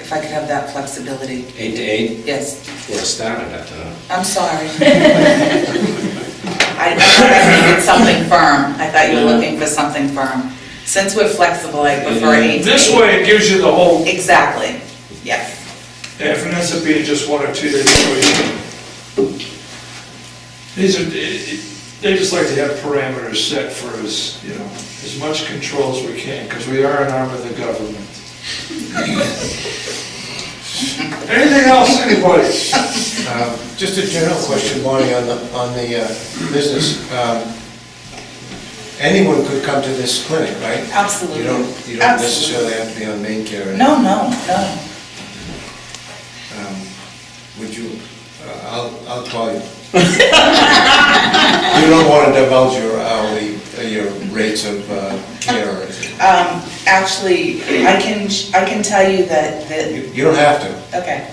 if I could have that flexibility. Eight to eight, Yes, we're starting at uh, that. I'm sorry. I thought I needed something firm. I thought you were looking for something firm. Since we're flexible, I prefer eight. to This eight. way, it gives you the whole, Exactly, yes. if it ends up being just one or two, they These are, they just like to have parameters set for us, you know, as much control as we can, because we are an arm of the government. Anything else, anybody? Um, Just a general question, Bonnie, on the, on the uh, business. Um, Anyone could come to this clinic, right? Absolutely. You don't, you don't Absolutely. necessarily have to be on main care. No, no, no. Um, Would you, uh, I'll, I'll call you. You don't want to divulge your hourly, uh, your rates of uh, care or anything. Um, Actually, I can, I can tell you that, that You you don't have to. Okay.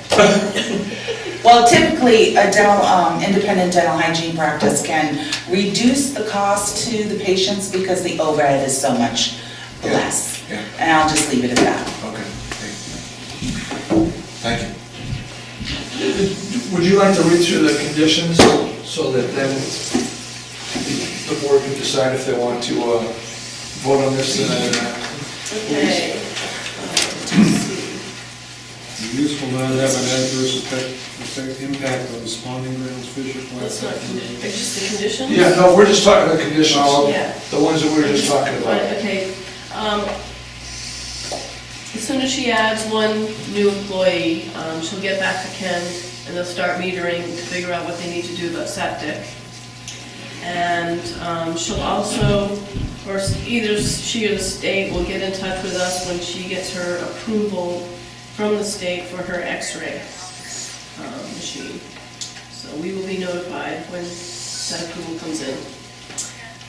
Well, typically, a dental, um, independent dental hygiene practice can reduce the cost to the patients because the overhead is so much Yeah, less. yeah. And I'll just leave it at that. Okay. Thank you. Thank you. Would you like to read through the conditions so that then the board can decide if they want to uh, vote on this? uh, Okay. The use will not have an adverse effect, effect, impact on the spawning grounds, fisher That's flats. not, condition- it's just the conditions? Yeah, no, we're just talking the conditions, Yeah. the ones that we were just talking Right, about. okay. Um, As soon as she adds one new employee, um, she'll get back to Ken and they'll start metering to figure out what they need to do about septic. And um, she'll also, or either she or the state will get in touch with us when she gets her approval from the state for her x-ray um, machine. So we will be notified when that approval comes in.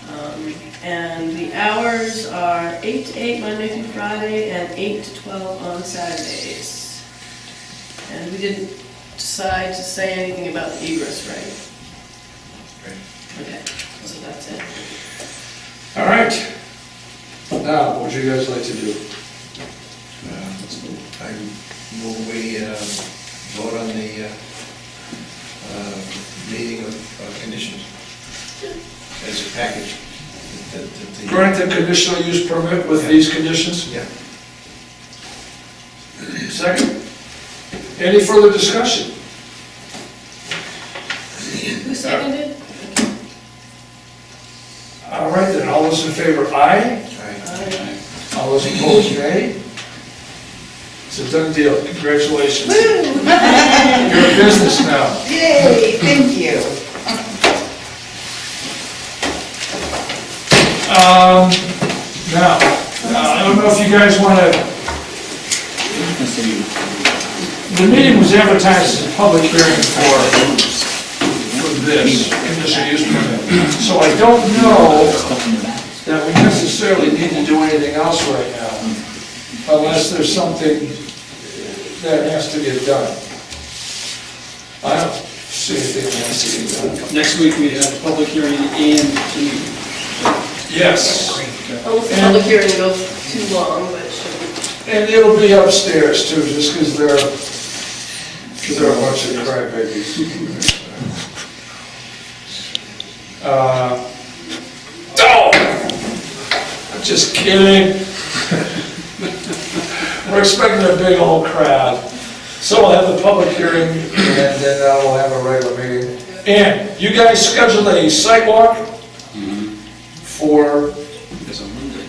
Um, And the hours are eight to eight Monday through Friday and eight to twelve on Saturdays. And we didn't decide to say anything about the egress, right? Okay, so that's it. All right. Now, what would you guys like to do? I move we uh, vote on the uh, uh, meeting of of conditions as a package. that- that the- Grant the conditional use permit with these conditions? Yeah. Second? Any further discussion? Who seconded? All right, then, all those in favor, aye? Aye. Aye. All those opposed, nay? It's a done deal, congratulations. You're in business now. Yay, thank you. Um, now, uh, I don't know if you guys wanna... The meeting was advertised as a public hearing for, for this, conditional use permit. So I don't know that we necessarily need to do anything else right now, unless there's something that has to get done. I don't see anything that has to get done. Next week, we have a public hearing and meeting. Yes. Almost a public hearing goes too long, but it shouldn't. And it'll be upstairs too, just because they're, because they're a bunch of crybabies. Uh, No! I'm just kidding. We're expecting a big old crowd. So we'll have the public hearing and then uh, we'll have a regular meeting. And you guys scheduled a site walk for It's on Monday.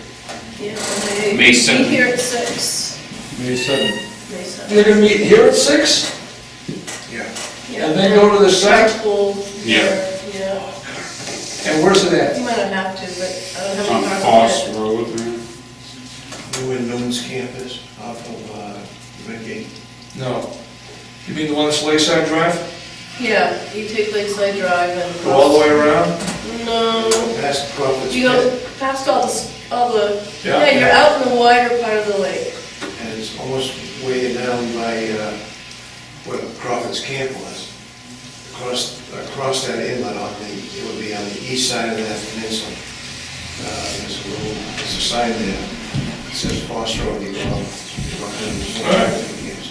Yeah, and they- May 7th. Be here at six. May seventh. May seventh. They're gonna meet here at six, Yeah. Yeah. and then go to the site, Carpool Yeah. here, Yeah. and where's it at? You might not have to, but I don't It's on have a car. Foss Road, right? New in Newman's campus off of uh, Redgate. No. You mean the one that's Lakeside Drive? Yeah, you take Lakeside Drive and. Go all the way around? No, Past Crawford's Um, you Pit. go past all the, s- all the, Yeah. yeah, you're out in the wider part of the lake. And it's almost way down by uh, where Crawford's camp was. Across, across that inlet on the, it would be on the east side of that peninsula. Uh, There's a little, there's a sign there, that says Foster Road, you go up. you go up and- Alright.